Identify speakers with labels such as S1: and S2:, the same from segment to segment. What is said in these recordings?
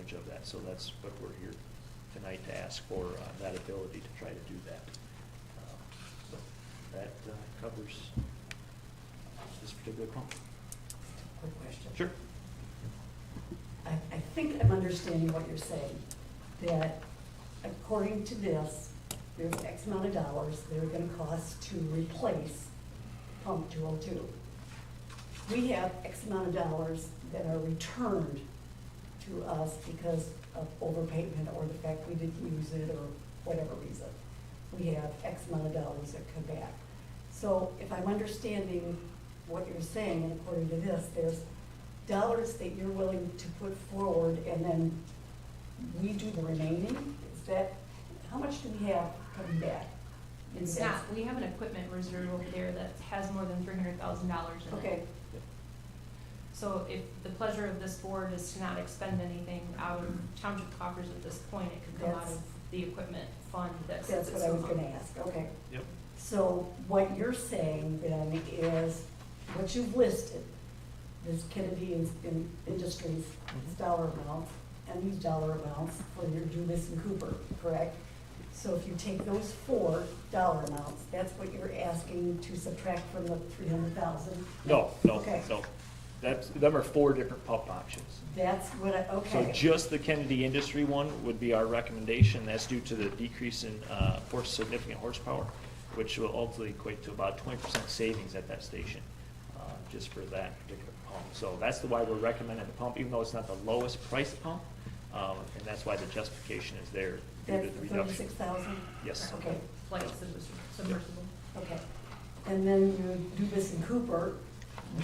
S1: advantage of that. So that's what we're here tonight to ask for, uh, that ability to try to do that. Um, So that uh, covers this particular pump.
S2: Quick question.
S1: Sure.
S2: I, I think I'm understanding what you're saying, that according to this, there's X amount of dollars that are gonna cost to replace pump two oh two. We have X amount of dollars that are returned to us because of overpayment or the fact we didn't use it or whatever reason. We have X amount of dollars that come back. So if I'm understanding what you're saying, and according to this, there's dollars that you're willing to put forward and then we do the remaining? Is that, how much do we have coming back? in
S3: It's
S2: that?
S3: not, we have an equipment reserve over there that has more than three hundred thousand dollars in it.
S2: Okay,
S3: So if the pleasure of this board is to not expend anything out of township coffers at this point, it could come out
S2: That's-
S3: of the equipment fund that sits
S2: that's what
S3: at
S2: I was
S3: Summa.
S2: gonna ask, okay.
S1: Yep.
S2: So what you're saying then is, what you've listed, this Kennedy in- in- Industries
S1: Mhm.
S2: dollar amounts and these dollar amounts for your Dubus and Cooper, correct? So if you take those four dollar amounts, that's what you're asking to subtract from the three hundred thousand?
S1: No, no,
S2: Okay.
S1: no. That's, them are four different pump options.
S2: That's what I,
S1: So
S2: okay.
S1: just the Kennedy Industry one would be our recommendation. That's due to the decrease in uh, horse, significant horsepower, which will ultimately equate to about twenty percent savings at that station, uh, just for that particular pump. So that's the why we're recommending the pump, even though it's not the lowest price pump, um, and that's why the justification is there due
S2: That's
S1: to the reduction.
S2: thirty-six thousand?
S1: Yes.
S2: Okay,
S3: Like submersible- submersible.
S2: okay. And then you Dubus and Cooper,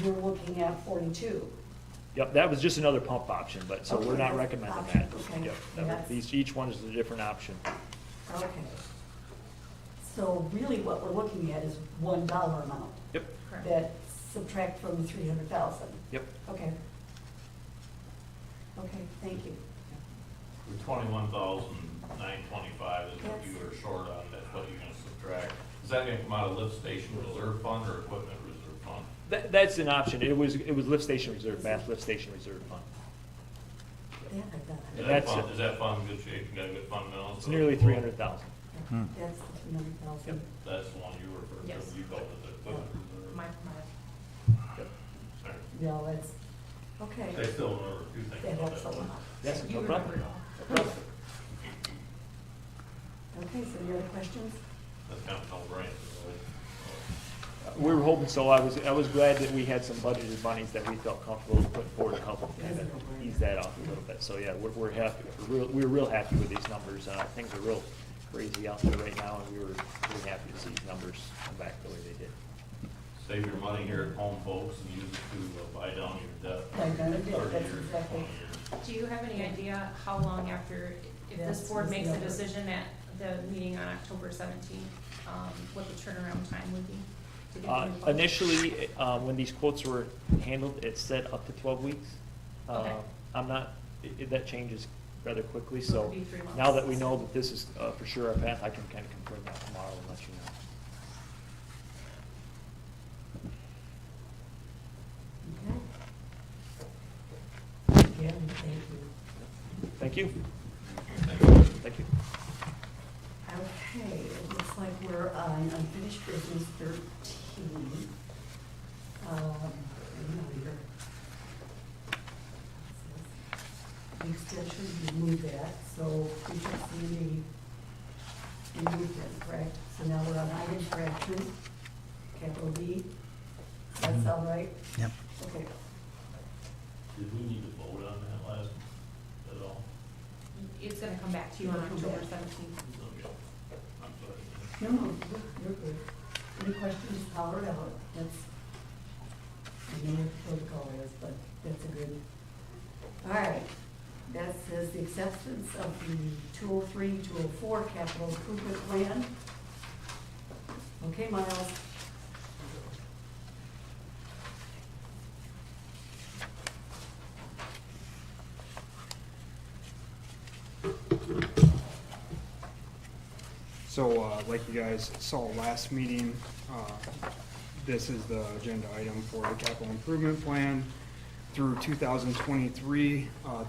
S2: you're looking at forty-two.
S1: Yep, that was just another pump option, but, so we're
S2: Okay,
S1: not
S2: that's
S1: recommending
S2: option,
S1: that.
S2: okay.
S1: Yep, that would-
S2: Yes.
S1: These, each one is a different option.
S2: Okay. So really what we're looking at is one dollar amount
S1: Yep,
S3: Correct.
S2: that subtract from the three hundred thousand.
S1: yep.
S2: Okay. Okay, thank you.
S4: Twenty-one thousand nine twenty-five is what you are short on, that's what you're gonna subtract. Is that gonna come out of lift station reserve fund or equipment reserve fund?
S1: That, that's an option. It was, it was lift station reserve, Bath lift station reserve fund.
S2: Yeah, I got it.
S4: Is
S1: That's
S4: that fund,
S1: it.
S4: is that fund in good shape, you got a good fund balance?
S1: It's nearly three hundred thousand.
S2: Yeah, That's the three hundred thousand.
S4: That's the one you referred
S3: Yes.
S4: to, you called it the equipment reserve.
S3: My, my,
S4: Sorry.
S2: No, that's, okay.
S4: I still remember two
S2: That
S4: things about
S2: helps
S4: that
S2: a
S4: one.
S2: lot.
S1: Yes,
S3: you
S1: no
S3: remember it
S1: problem.
S3: all.
S2: Okay, so any other questions?
S4: That's kind of all right.
S1: We were hoping so. I was, I was glad that we had some budgeted monies that we felt comfortable putting forward to help kind of ease that off a little bit. So, yeah, we're, we're happy, we're real, we're real happy with these numbers. Uh, things are real crazy out there right now, and we were pretty happy to see these numbers come back the way they did.
S4: Save your money here at home, folks, and use it to uh, buy down your debt.
S2: Like, I did,
S4: 30
S2: that's
S4: years,
S2: exactly-
S4: 20 years.
S3: Do you have any idea how long after, if
S2: That's-
S3: this board
S2: that's
S3: makes
S2: the
S3: a
S2: other.
S3: decision at the meeting on October seventeenth, um, what the turnaround time would be? to get
S1: Uh,
S3: the new pump?
S1: Initially, uh, when these quotes were handled, it said up to 12 weeks.
S3: Okay.
S1: Uh, I'm not, i- i- that changes rather quickly,
S3: So it
S1: so
S3: would be three months.
S1: now that we know that this is uh, for sure our path, I can kind of confirm that tomorrow and let you know.
S2: Okay. Again, thank you.
S1: Thank you. Thank you.
S2: Okay, it looks like we're on unfinished business thirteen. Um, hang on here. The extension, we moved that, so we can see the, and moved that, correct? So now we're on item correction, capital B. That's all right?
S5: Yep.
S2: Okay.
S4: Did we need to vote on that last, at all?
S3: It's gonna come back to you on October seventeenth.
S4: Okay. I'm sorry.
S2: No, no, you're- you're good. Any questions, holler it out. That's, I know what protocol is, but that's a good. All right, that says the acceptance of the 203, 204 capital improvement plan. Okay, Miles,
S5: So, uh, like you guys saw last meeting, uh, this is the agenda item for the capital improvement plan through 2023, uh,